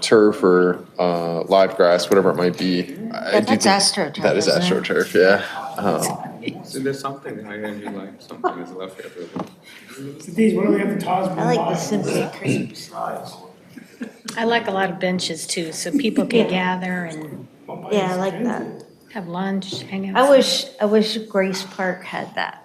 turf or uh, live grass, whatever it might be. I do That's think- astroturf, That is isn't it? astroturf, yeah. Um, So there's something high energy life, something is left here. These, what do we have the Tasman? I like the Live? Simpson creams. I like a lot of benches too, so people can gather and Yeah, I like that. have lunch, hang out. I wish, I wish Grace Park had that.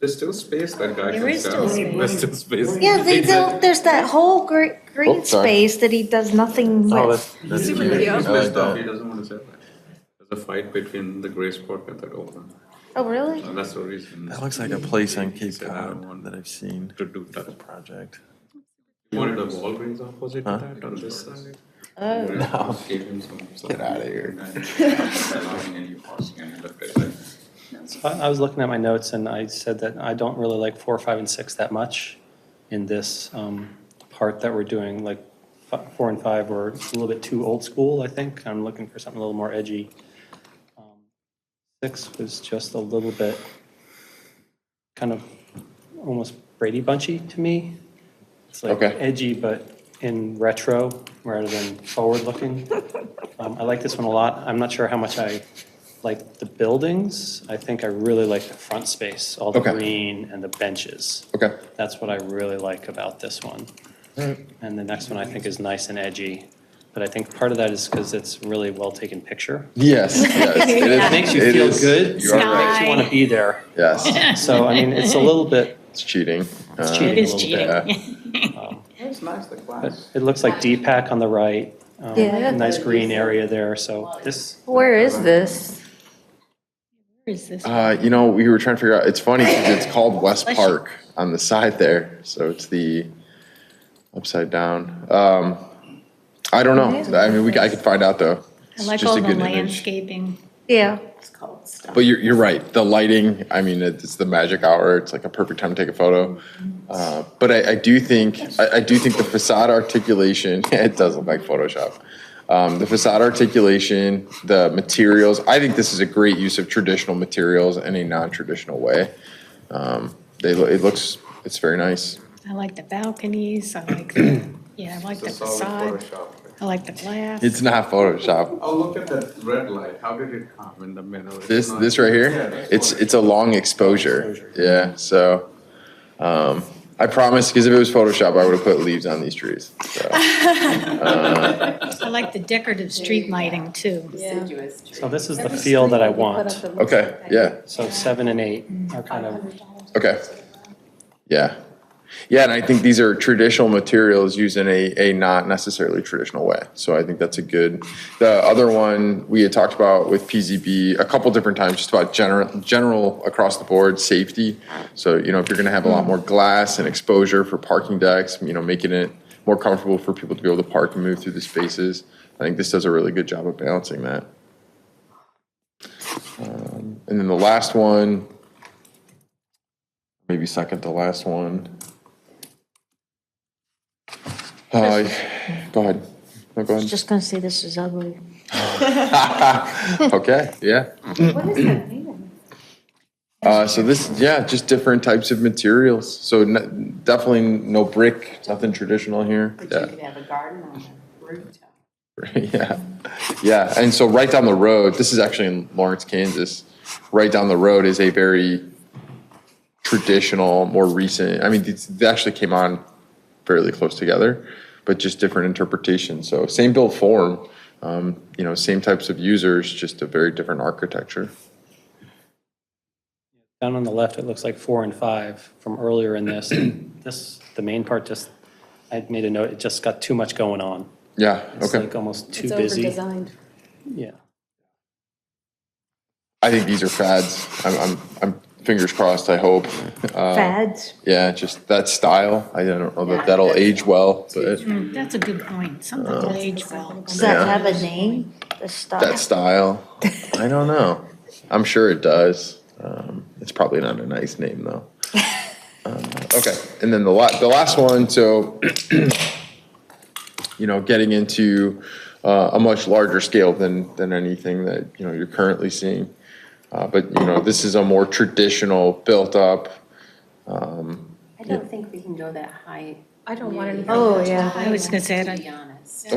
There's still space that guy can sell. There is still space. There's still space. Yeah, they It's a- don't, there's that whole gre- green sorry. space that he does nothing Oh, with. that's, that's He's cute. I like pissed off, he that. doesn't want to sell that. There's a fight between the Grace Park and that old one, Oh, really? and that's the reason. That looks like a place on Cape said, "I don't want Cod that I've seen. To do that. Project. You wanted a Walgreens opposite to Huh? that on this side? Oh, No. Gave him some. Get outta here. And you passing and looked at it. I, I was looking at my notes and I said that I don't really like four, five, and six that much in this um, part that we're doing, like fi- four and five were a little bit too old school, I think. I'm looking for something a little more edgy. Um, Six was just a little bit kind of almost Brady Bunchy to me. It's like Okay. edgy, but in retro rather than forward-looking. Um, I like this one a lot. I'm not sure how much I like the buildings. I think I really like the front space, all the Okay. green and the benches. Okay. That's what I really like about this one. And the next one I think is nice and edgy, but I think part of that is because it's really well-taken picture. Yes, yes. it is- It makes you it feel is- good. You are right. Makes you want to be there. Yes, So, I mean, it's a little bit, it's cheating. It's Uh, cheating. It is yeah. cheating. It's nice, the um, but glass. it looks like D-PAC on the right. um, Yeah. Nice green area there, so this, where is this? Where is this? Uh, you know, we were trying to figure out, it's funny, 'cause it's called West Park on the side there, so it's the upside down. Um, I don't know, I mean, we, I could find out though. I It's like just all a the good image. landscaping. Yeah, But you're, you're right, the lighting, I mean, it's the magic hour, it's like a perfect time to take a photo. Uh, But I, I do think, I, I do think the facade articulation, it does look like Photoshop. Um, The facade articulation, the materials, I think this is a great use of traditional materials in a non-traditional way. Um, They, lo- it looks, it's very nice. I like the balconies, I like, the yeah, I like the It's a solid facade, Photoshop. I like the glass. It's not Photoshop. Oh, look at that red light, how did it come in the middle? It's This, not- this right Yeah, here, that's it's, what- it's a long exposure. Yeah, so, um, I promise, because if it was Photoshop, I would have put leaves on these trees. So, I like the decorative street lighting too. deciduous tree. so this is the feel that I want. Okay, yeah, So seven and eight are kind of, okay. Yeah. Yeah, and I think these are traditional materials used in a, a not necessarily traditional way. So I think that's a good, the other one we had talked about with PZB a couple different times, just about general, general across the board, safety. So, you know, if you're gonna have a lot more glass and exposure for parking decks, you know, making it more comfortable for people to be able to park and move through the spaces. I think this does a really good job of balancing that. Um, And then the last one, maybe second to last one. Uh, Go ahead. No, go I was ahead. just gonna say this is ugly. Okay, yeah. What is that made of? Uh, So this, yeah, just different types of materials. So n- definitely no brick, nothing traditional here. But you Yeah. could have a garden on a rooftop. Yeah, yeah, and so right down the road, this is actually in Lawrence, Kansas. Right down the road is a very traditional, more recent. I mean, it's, they actually came on fairly close together, but just different interpretations. So same build form, um, you know, same types of users, just a very different architecture. down on the left, it looks like four and five from earlier in this. This, the main part just, I made a note, it just got too much going on. Yeah, It's okay. like almost too busy. Yeah. I think these are fads. I'm, I'm, I'm fingers crossed. I hope. Uh, Fads. yeah, just that style. I don't know that that'll age well, but Mm, That's a good point, something Oh. will age well. Does that Yeah. have a name? The stuff? that style. I don't know. I'm sure it does. Um, it's probably not a nice name though. Um, okay, and then the la- the last one. So, you know, getting into uh, a much larger scale than than anything that you know you're currently seeing. Uh, but you know, this is a more traditional, built up. I don't think we can go that high. I don't want anything Oh, yeah. I was gonna say, I honest.